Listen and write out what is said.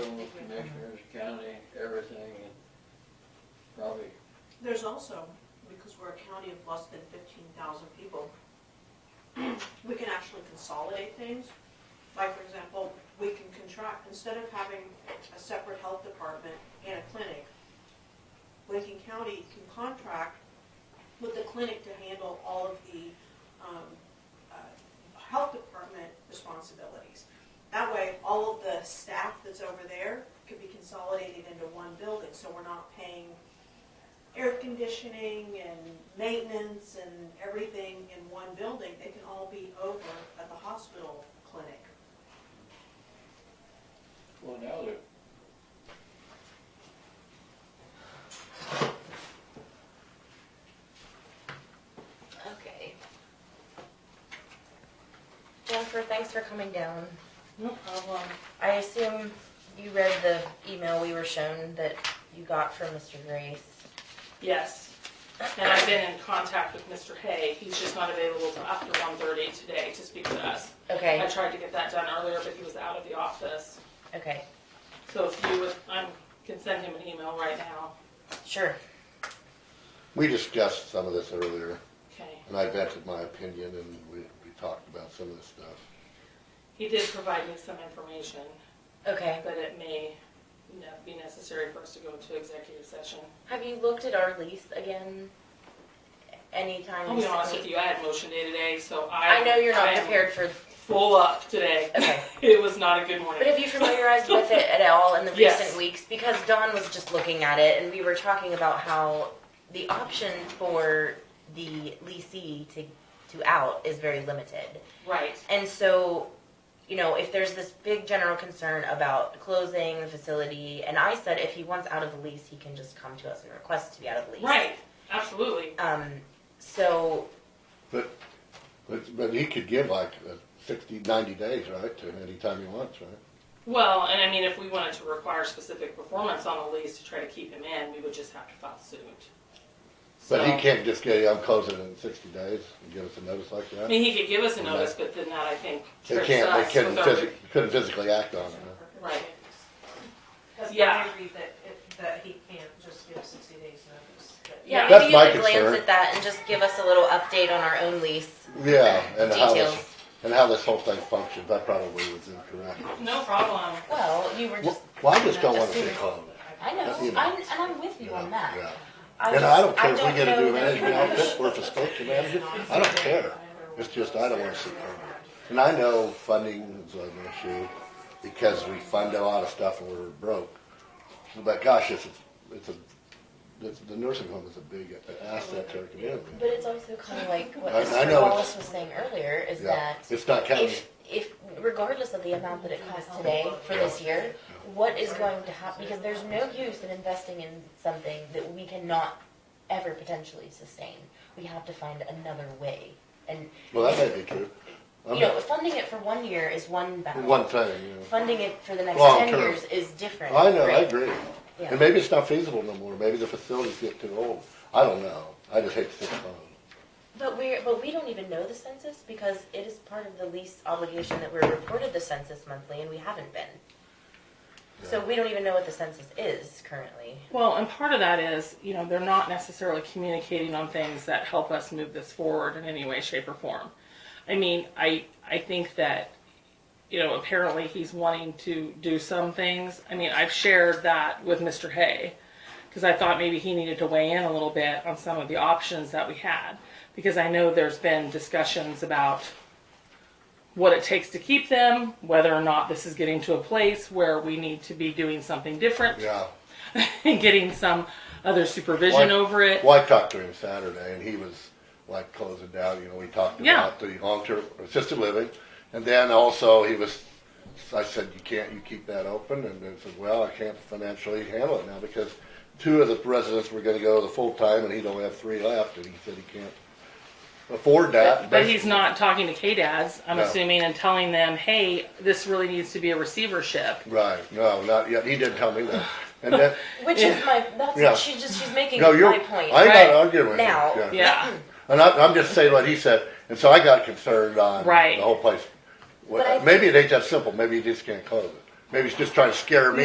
everything and probably, There's also, because we're a county of less than fifteen thousand people, we can actually consolidate things. Like, for example, we can contract, instead of having a separate health department and a clinic, Lincoln County can contract with the clinic to handle all of the, um, uh, health department responsibilities. That way, all of the staff that's over there could be consolidated into one building, so we're not paying air conditioning and maintenance and everything in one building, they can all be over at the hospital clinic. well, now they're. Okay. Jennifer, thanks for coming down. No problem. I assume you read the email we were shown that you got from Mr. Grace. Yes. And I've been in contact with Mr. Hay. He's just not available till after 1:30 today to speak to us. I Okay, tried to get that done earlier, but he was out of the office. okay, So if you would, I can send him an email right now. sure. We discussed some of this earlier, Okay. and I vented my opinion, and we, we talked about some of this stuff. He did provide me some information, Okay. but it may ne- be necessary for us to go into executive session. Have you looked at our lease again? Anytime I'll be honest with you, I had motion day today, so I. I know you're I not am prepared for, Full up today. Okay. It was not a good but morning. have you familiarized with it at all in the Yes. recent weeks? Because Dawn was just looking at it and we were talking about how the option for the leasee to, to out is very limited. Right. And so, you know, if there's this big general concern about closing the facility, and I said if he wants out of the lease, he can just come to us and request to be out of the lease. Right. Absolutely. Um, so, But, but, but he could give like uh, sixty, ninety days, right, to any time he wants, right? Well, and I mean, if we wanted to require specific performance on a lease to try to keep him in, we would just have to file suit. But So- he can't just get, I'm closing in sixty days and give us a notice like I that? mean, he could give us a notice, but then that I think They trips can't, they us couldn't with our- physically, couldn't physically act on it, huh? Right. Because Yeah. I read that, it- that he can't just give sixty days notice. that- yeah, Yeah. maybe That's you my could glance concern. at that and just give us a little update on our own lease Yeah, and how details. this, and how this whole thing functions, I probably was incorrect. No problem. Well, you were just, Wh- Well, I just don't wanna see Assuming- closed. I know, You know. I'm, and I'm with you Yeah, on that. yeah. I And I don't just- care if we get a know new that you management would. outfit or if it's supposed to manage it, I don't care. It's just, I don't wanna see permanent. And I know funding is an issue because we fund a lot of stuff and we're broke. But gosh, it's, a- it's a, it's, the nursing home is a big asset to our community. But it's also kind of like what I- I know Mr. it's- Wallace was saying earlier, is Yeah, that it's not counting. if, if, regardless of the amount that it costs today for this year, what is going to happen? Because there's no use in investing in something that we cannot ever potentially sustain. We have to find another way. And, Well, that may be true. I'm you know, funding it for one year is one not- battle. One thing, you know. Funding it for the next Long ten term. years is different. I know, I right? agree. Yeah. And maybe it's not feasible no more. Maybe the facilities get too old. I don't know. I just hate to think about it. But we're, but we don't even know the census because it is part of the lease obligation that we're reported the census monthly and we haven't been. So we don't even know what the census is currently. Well, and part of that is, you know, they're not necessarily communicating on things that help us move this forward in any way, shape, or form. I mean, I I think that, you know, apparently he's wanting to do some things. I mean, I've shared that with Mr. Hay because I thought maybe he needed to weigh in a little bit on some of the options that we had because I know there's been discussions about what it takes to keep them, whether or not this is getting to a place where we need to be doing something different Yeah. and getting some other supervision Why- over it. Well, I talked to him Saturday, and he was like closing down. You know, we talked Yeah. about the long-term assisted living, and then also he was. I said, "You can't. You keep that open." And he said, "Well, I can't financially handle it now because two of the residents were going to go the full time, and he'd only have three left." And he said he can't afford that. But he's not talking to K-dads, I'm No. assuming, and telling them, hey, this really needs to be a receivership. right. No, not yet. He didn't tell me that. And that Which is my, that's, Yeah. she just, she's making no, you're. my point. I'm right? not arguing with you. Now. Yeah. And I, I'm just saying what he said, and so I got concerned on Right. the whole place. But I- Well, maybe it ain't that simple. Maybe he just can't close it. Maybe he's just trying to scare me.